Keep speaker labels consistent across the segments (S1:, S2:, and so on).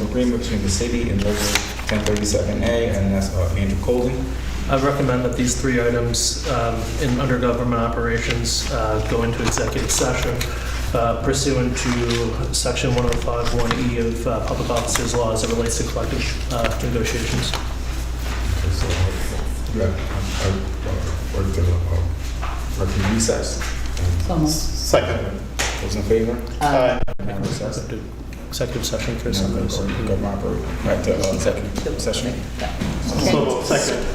S1: agreement between the city and local 1037A, and that's uh, Andrew Colden.
S2: I recommend that these three items um, in under government operations uh, go into executive session uh, pursuant to section 105(1)E of uh, Public Officers Law as it relates to collective uh, negotiations.
S1: Yeah, I worked at a, working recess.
S3: So moved.
S4: Second.
S1: Those in favor?
S3: Uh,
S1: Now recess.
S2: Executive session for
S1: Now
S2: some
S1: go
S2: reason.
S1: to government operate, right to uh, executive session.
S4: So moved. Second.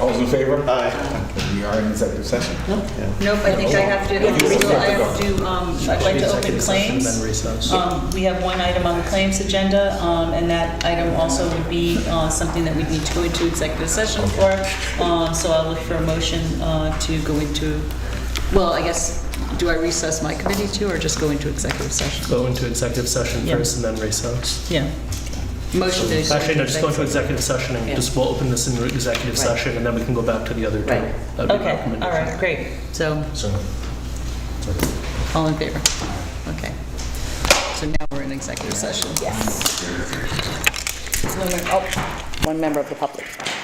S1: All those in favor?
S4: Aye.
S1: Okay, We are in executive session.
S3: Nope.
S5: Nope, I think I have to,
S1: Yeah, you
S5: um, so I
S1: have to
S5: have to, um, I'd like
S2: Actually,
S5: to open
S2: executive session, Then
S5: claims.
S2: recess.
S5: Um, We have one item on the claims agenda, um, and that item also would be uh, something that we need to go into executive session for. Um, So I'll look for a motion uh, to go into, well, I guess, do I recess my committee too, or just go into executive session?
S2: Go into executive session
S5: Yeah.
S2: first and then recess.
S5: Yeah. Motion to. go
S2: Actually, no,
S5: into
S2: just go into
S5: executive-
S2: executive session and
S5: Yeah.
S2: just we'll open this in executive
S5: Right.
S2: session and then we can go back to the other two.
S5: Right.
S2: That would be
S5: Okay,
S2: recommended.
S5: all right, great. So,
S1: So,
S5: all in favor? Okay. So now we're in executive session.
S3: Yes. One mem- oh, One member of the public.